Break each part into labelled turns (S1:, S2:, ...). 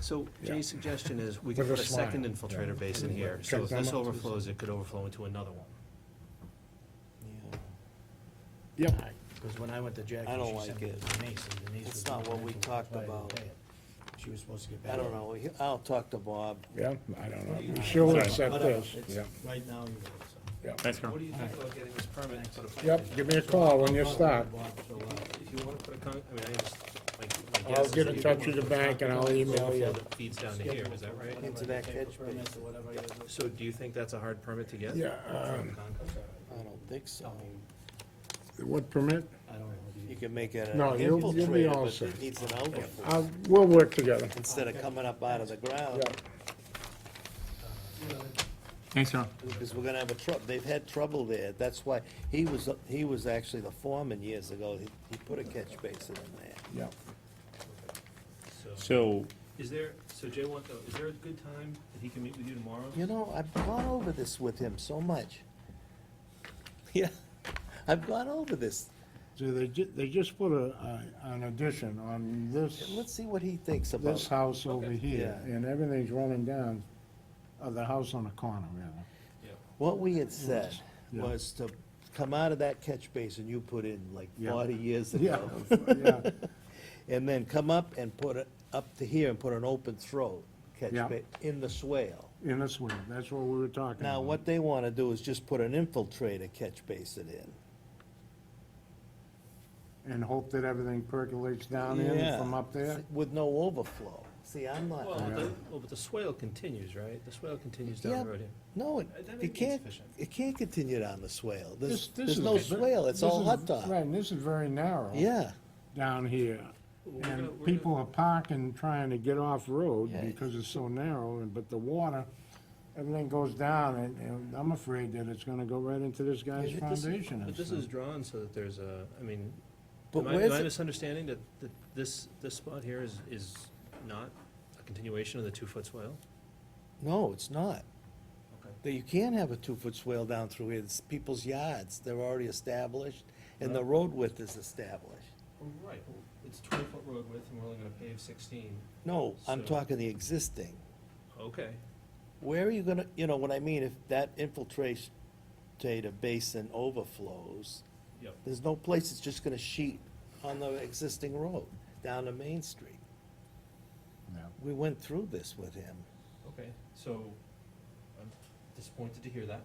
S1: So
S2: Yeah.
S1: Jay's suggestion is we could
S2: With a
S1: put a second
S2: smile,
S1: infiltrator
S2: yeah.
S1: basin here, so if this overflows, it could overflow into another one.
S2: Yep.
S3: Because when I went to Jackie,
S4: I don't
S3: she sent
S4: like
S3: me
S4: it.
S3: to Denise, and Denise
S4: It's
S3: was
S4: not what we
S3: documenting
S4: talked
S3: why I didn't
S4: about.
S3: pay it. She was supposed to get back.
S4: I don't know, I'll talk to Bob.
S2: Yeah, I don't know. We should accept
S3: Whatever,
S2: this.
S3: it's-
S2: Yeah,
S3: Right now, you know, so.
S2: yeah.
S5: Thanks, Carl.
S1: What do you think about getting this permit and put a plant?
S2: Yep, give me a call when you
S3: I'll talk
S2: stop.
S3: to Bob, so, uh,
S1: If you wanna put a con, I mean, I just, like, my guess
S2: I'll
S1: is
S2: get
S1: that
S2: in
S1: you
S2: touch
S1: could
S2: with the
S1: put a
S2: bank and I'll email
S1: overflow
S2: you.
S1: that Feeds down to here, is that right?
S4: Into that
S3: take
S4: catch
S3: for permits
S4: basin.
S3: or whatever it is.
S1: So do you think that's a hard permit to get?
S2: Yeah, um,
S4: I don't think so.
S2: what permit?
S3: I don't know. do
S4: You
S3: you-
S4: can make it an
S2: No, you'll- you'll be
S4: infiltrator,
S2: all
S4: but
S2: set.
S4: it needs an outflow
S2: I'll, Uh, we'll work together.
S4: instead of coming up out of the ground.
S2: Yeah.
S5: Thanks, Carl.
S4: Because we're gonna have a trouble, they've had trouble there, that's why, he was, he was actually the foreman years ago, he, he put a catch basin in there.
S2: Yeah.
S1: So,
S5: So,
S1: is there, so Jay, want, though, is there a good time that he can meet with you tomorrow?
S4: You know, I've gone over this with him so much. Yeah, I've gone over this,
S2: So they ju, they just put a, a- an addition on this,
S4: let's see what he thinks about
S2: this
S4: it.
S2: house over here,
S4: Yeah.
S2: and everything's running down, uh, the house on the corner, rather.
S4: What we had said
S2: Yeah.
S4: was to come out of that catch basin you put in like
S2: Yeah.
S4: forty years
S2: Yeah,
S4: ago.
S2: yeah,
S4: And then come up and put it up to here and put an open throat catch
S2: Yeah.
S4: ba, in the swale.
S2: in this way, that's what we were talking about.
S4: Now, what they wanna do is just put an infiltrator catch basin in.
S2: And hope that everything percolates down in
S4: Yeah.
S2: from up there?
S4: With no overflow. See, I'm not,
S1: Well,
S2: Yeah.
S1: the, well, but the swale continues, right? The swale continues down
S4: Yeah.
S1: the road here.
S4: no, it,
S1: Uh, that may be
S4: it can't,
S1: insufficient.
S4: it can't continue down the swale.
S2: This-
S4: There's,
S2: this
S4: there's
S2: is
S4: no
S2: ve-
S4: swale, it's
S2: this
S4: all
S2: is-
S4: hot dog.
S2: Right, and this is very narrow.
S4: Yeah,
S2: Down here.
S1: Well, we're gonna- we're
S2: And
S1: gonna-
S2: people are parking, trying to get off road
S4: Yeah.
S2: because it's so narrow, and, but the water, everything goes down, and, and I'm afraid that it's gonna go right into this guy's
S1: But this-
S2: foundation. and
S1: But this
S2: stuff.
S1: is drawn so that there's a, I mean,
S4: But
S1: am I, am
S4: where's
S1: I
S4: it-
S1: misunderstanding that, that this, this spot here is, is not a continuation of the two-foot swale?
S4: no, it's not.
S1: Okay.
S4: That you can't have a two-foot swale down through here, it's people's yards, they're already established, and the road width is established.
S1: Oh, Right, it's twenty-foot road width and we're only gonna pave sixteen.
S4: No, I'm
S1: So-
S4: talking the existing.
S1: Okay,
S4: Where are you gonna, you know what I mean, if that infiltration basin overflows,
S1: yep.
S4: there's no place, it's just gonna sheet on the existing road, down to Main Street.
S2: Yeah.
S4: We went through this with him.
S1: Okay, so I'm disappointed to hear that.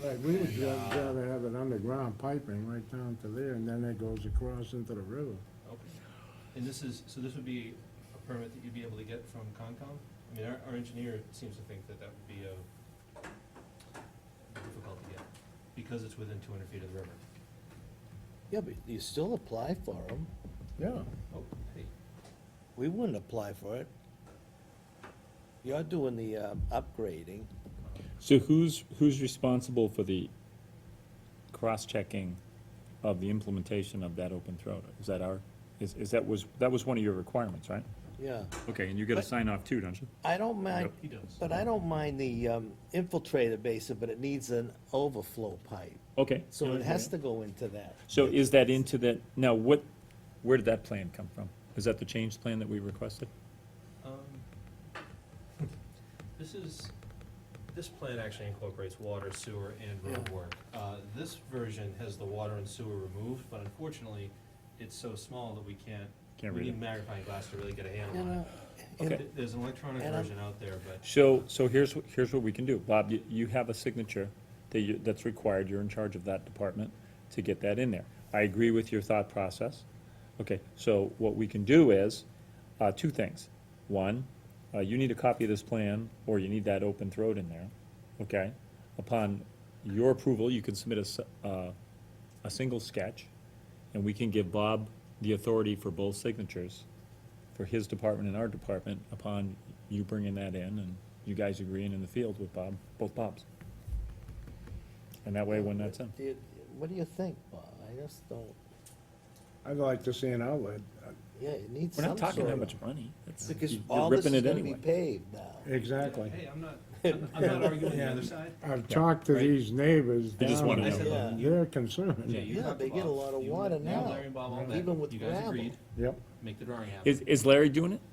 S2: Right, we would ra- rather have it underground piping right down to there, and then it goes across into the river.
S1: Okay. And this is, so this would be a permit that you'd be able to get from Concom? I mean, our, our engineer seems to think that that would be a difficult to get, because it's within two hundred feet of the river.
S4: Yeah, but you still apply for them.
S2: Yeah.
S1: Oh, hey,
S4: We wouldn't apply for it. You're doing the uh, upgrading.
S5: so who's, who's responsible for the cross-checking of the implementation of that open throat? Is that our, is, is that was, that was one of your requirements, right?
S4: Yeah,
S5: Okay, and you get a
S4: But-
S5: sign off too, don't you?
S4: I don't mind,
S1: he does.
S4: but I don't mind the um, infiltrator basin, but it needs an overflow pipe.
S5: Okay.
S4: So it has to go into that.
S5: So is that into that, now what, where did that plan come from? Is that the change plan that we requested?
S1: Um, This is, this plan actually incorporates water, sewer, and road work. Uh, This version has the water and sewer removed, but unfortunately, it's so small that we can't,
S5: Can't
S1: we
S5: read
S1: need
S5: it.
S1: magnifying glass to really get a handle
S4: You
S1: on it.
S4: know,
S5: Okay.
S1: Th- There's an electronic
S4: And I'm-
S1: version out there, but
S5: So, so here's, wh- here's what we can do. Bob, you, you have a signature that you, that's required, you're in charge of that department to get that in there. I agree with your thought process. Okay, so what we can do is, uh, two things. One, uh, you need a copy of this plan, or you need that open throat in there, okay? Upon your approval, you can submit a, s- uh, a single sketch, and we can give Bob the authority for both signatures for his department and our department upon you bringing that in and you guys agreeing in the field with Bob, both Bobs. And that way, when that's in,
S4: do you- What do you think, Bob? I just don't,
S2: I'd like to see an outlet.
S4: yeah, it needs
S5: we're
S4: some
S5: not
S4: sort
S5: talking that
S4: of.
S5: much money. It's-
S4: Because
S5: you-
S4: all
S5: You're
S4: this
S5: ripping
S4: is
S5: it
S4: gonna be
S5: anyway.
S4: paved now.
S2: Exactly.
S1: hey, I'm not, I'm I'm not arguing the other side.
S2: I've talked to
S1: Right.
S2: these neighbors
S5: They just
S2: down
S5: wanna
S2: there,
S1: know.
S2: and they're concerned.
S1: you
S4: Yeah,
S1: talked to
S4: they get a
S1: Bob.
S4: lot of
S1: You-
S4: water
S1: you and
S4: now,
S1: Larry and Bob all met.
S4: even with
S1: You guys
S4: gravel.
S1: agreed,
S2: Yep,
S1: make the drawing happen.
S5: Is, is Larry doing it?